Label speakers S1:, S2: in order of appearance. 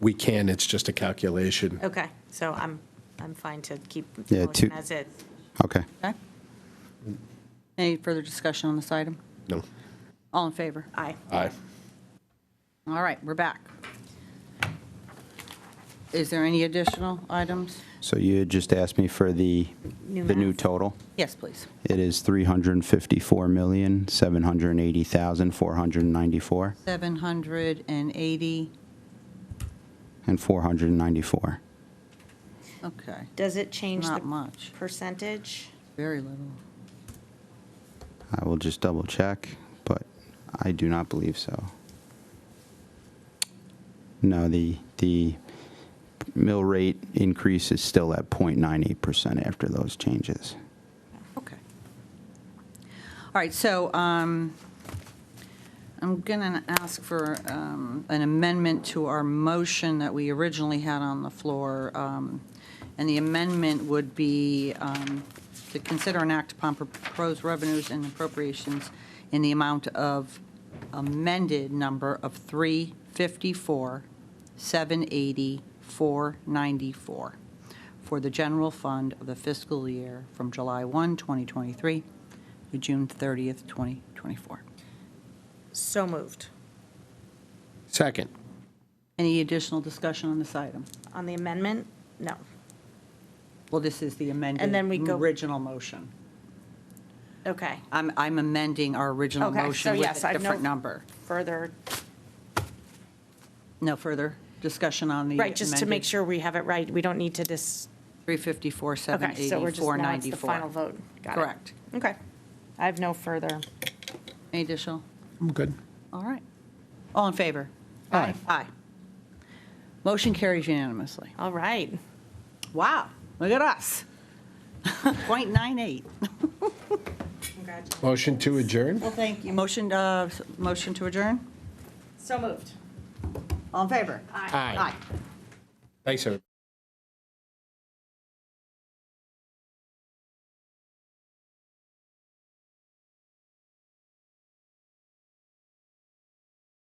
S1: we can, it's just a calculation.
S2: Okay, so I'm, I'm fine to keep
S3: Yeah,
S2: the
S3: two-
S2: motion as it.
S3: Okay.
S4: Okay. Any further discussion on this item?
S1: No.
S4: All in favor?
S2: Aye.
S1: Aye.
S4: All right, we're back. Is there any additional items?
S3: So you had just asked me for the,
S2: New
S3: the new
S2: math.
S3: total.
S4: Yes, please.
S3: It is $354,780,494
S4: 780,
S3: and 494.
S4: okay,
S2: Does it change
S4: not
S2: the
S4: much,
S2: percentage?
S4: very little.
S3: I will just double check, but I do not believe so. No, the, the mill rate increase is still at 0.98% after those changes.
S4: Okay. All right, so um, I'm going to ask for um, an amendment to our motion that we originally had on the floor. um, And the amendment would be um, to consider and act upon proposed revenues and appropriations in the amount of amended number of 354, 780, 494 for the general fund of the fiscal year from July 1, 2023 to June 30th, 2024.
S2: So moved.
S1: Second.
S4: Any additional discussion on this item?
S2: On the amendment? No.
S4: Well, this is the amended.
S2: then we go-
S4: Original motion.
S2: Okay.
S4: I'm, I'm amending our original
S2: Okay, so
S4: motion with
S2: yes,
S4: a
S2: I've no-
S4: different number.
S2: Further, no.
S4: No further discussion on the.
S2: right, just to make
S4: amended
S2: sure we have it right. We don't need to dis,
S4: 354,
S2: okay,
S4: 780,
S2: so we're just, now it's the
S4: 494.
S2: final vote. Got it.
S4: Correct.
S2: Okay. I have no further.
S4: Any additional?
S1: I'm good.
S4: All right. All in favor?
S1: Aye.
S4: Aye. Motion carries unanimously.
S2: All right.
S4: Wow, look at us. 0.98.
S2: Congratulations.
S1: Motion to adjourn?
S4: Well, thank you. Motion, uh, s- motion to adjourn?
S2: So moved.
S4: All in favor?
S1: Aye. Thanks, everyone.